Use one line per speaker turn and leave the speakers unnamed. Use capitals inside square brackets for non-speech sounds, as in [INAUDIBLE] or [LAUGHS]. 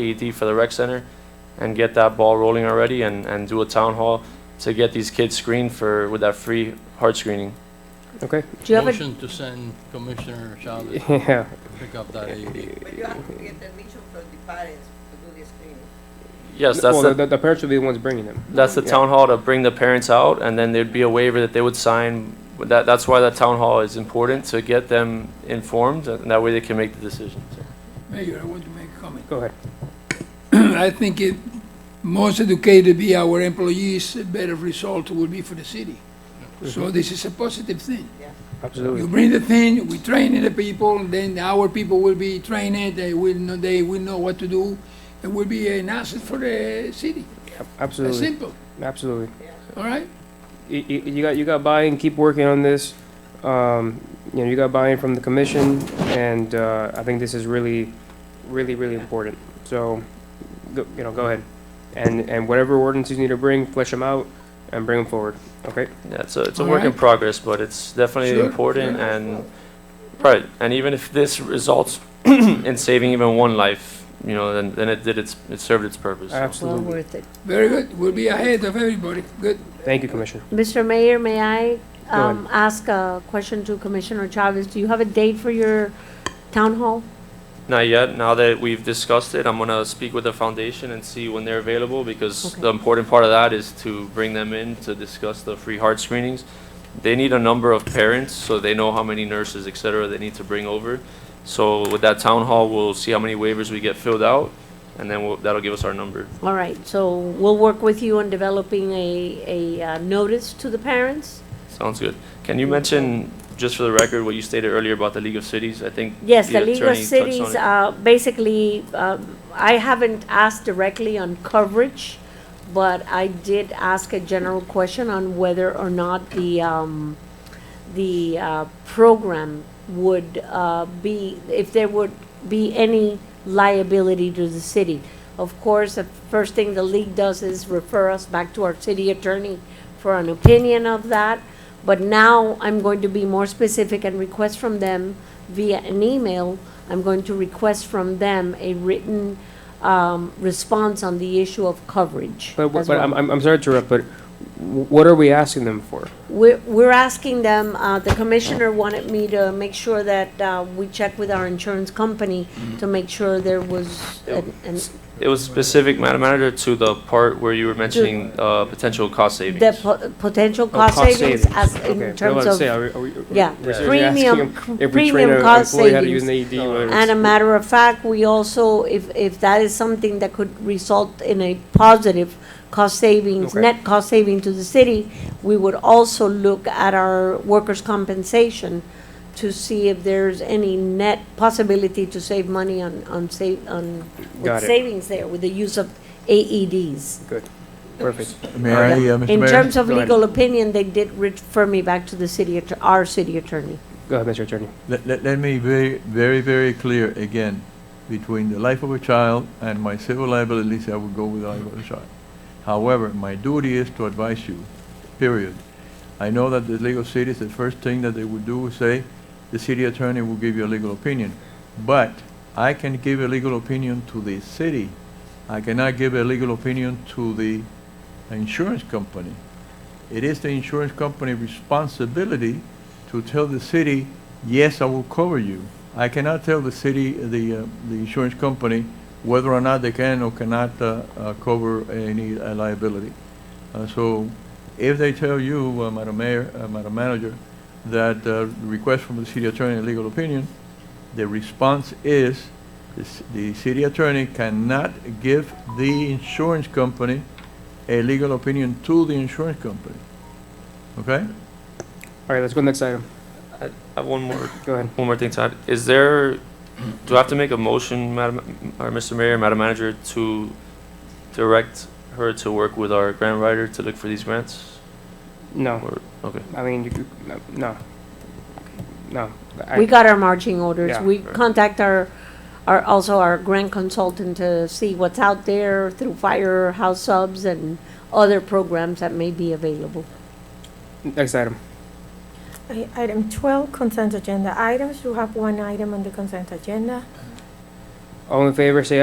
AED for the rec center and get that ball rolling already and, and do a town hall to get these kids screened for, with that free heart screening.
Okay. [LAUGHS]
Do you have a,
Motion to send Commissioner Chavez to
Yeah.
pick up that
[LAUGHS]
AED.
But you have to get permission from the parents to do the screening.
Yes, that's
Well, the,
the,
the, the parents would be the ones bringing them.
that's the
yeah.
town hall to bring the parents out and then there'd be a waiver that they would sign. That, that's why that town hall is important to get them informed and that way they can make the decision. so.
Mayor, I want to make a comment. [CLEARS THROAT]
Go ahead.
I think it, most educated be our employees, a better result will be for the city. So this is a positive thing. You
Absolutely.
bring the thing, we train the people, then our people will be trained, they will know, they will know what to do. It will be an asset for the city. That's
Absolutely.
simple,
Absolutely.
all right?
you, you you got you got buy-in. Keep working on this. Um, you know, you got buy-in from the commission, and uh, I think this is really, really, really important. So, go, you know, go ahead, and and whatever ordinances you need to bring, flesh them out, and bring them forward. Okay.
Yeah, it's a, it's a
All
work in
right.
progress, but it's definitely
Sure,
important and, right, and even if this results [CLEARS THROAT] in saving even one life, you know, then, then it did its, it served its purpose. so.
Absolutely.
well worth it.
Very good, we'll be ahead of everybody, good.
Thank you, Commissioner.
Mr. Mayor, may I
Go ahead.
um, ask a question to Commissioner Chavez? Do you have a date for your town hall?
Not yet. Now that we've discussed it, I'm gonna speak with the foundation and see when they're available, because
Okay.
the important part of that is to bring them in to discuss the free heart screenings. They need a number of parents, so they know how many nurses, et cetera, they need to bring over. So with that town hall, we'll see how many waivers we get filled out, and then we'll, that'll give us our number.
All right, so we'll work with you on developing a, a uh, notice to the parents?
Sounds good. Can you mention, just for the record, what you stated earlier about the League of Cities? I think.
Yes, the League of
attorney touched on
Cities,
it.
uh, basically, um, I haven't asked directly on coverage, but I did ask a general question on whether or not the, um, the uh, program would uh, be, if there would be any liability to the city. Of course, the first thing the league does is refer us back to our city attorney for an opinion of that. But now I'm going to be more specific and request from them via an email, I'm going to request from them a written um, response on the issue of coverage
But, but
as well.
I'm, I'm I'm sorry to interrupt, but w- what are we asking them for?
We're, we're asking them, uh, the commissioner wanted me to make sure that, uh, we check with our insurance company to make sure there was, an- an-
It Mm-hmm. was specific, Madam Manager, to the part where you were mentioning, uh, potential cost savings.
the po- potential
Oh,
cost savings as,
Okay.
in
I was
terms
about to say,
of,
are we- are we- are we-
yeah,
we're seriously
premium,
asking If we train
premium
an
cost
employee how to use
savings.
an AED, whether it's-
And a matter of fact, we also, if, if that is something that could result in a positive cost savings,
Okay.
net cost saving to the city, we would also look at our workers' compensation to see if there's any net possibility to save money on, on save, on, with
Got it.
savings there, with the use of AEDs.
perfect.
May I, uh, Mr.
In
Mayor?
terms of
Go ahead.
legal opinion, they did refer me back to the city, atter- our city attorney.
Go ahead, Mr. Attorney.
Let, let, let me be very, very clear again, between the life of a child and my civil liabilities, I would go with the life of a child. However, my duty is to advise you, period. I know that the legal cities, the first thing that they would do is say, the city attorney will give you a legal opinion. But I can give a legal opinion to the city. I cannot give a legal opinion to the insurance company. It is the insurance company responsibility to tell the city, yes, I will cover you. I cannot tell the city, the, uh, the insurance company, whether or not they can or cannot uh, uh, cover any uh, liability. Uh, So if they tell you, uh, Madam Mayor, uh, Madam Manager, that uh, request from the city attorney a legal opinion, the response is, the c- the city attorney cannot give the insurance company a legal opinion to the insurance company. Okay?
All right, let's go to the next item.
I have one more
Go ahead.
One more thing, Todd. Is there, do I have to make a motion, Madam, or Mr. Mayor, Madam Manager, to direct her to work with our grant writer to look for these grants?
No,
Or, okay.
I mean, you could, no, no. no. I-
We got our marching orders.
Yeah.
We contact our, our, also our grant consultant to see what's out there through firehouse subs and other programs that may be available.
Next item.
I- Item 12, consent agenda items. You have one item on the consent agenda.
All in favor, say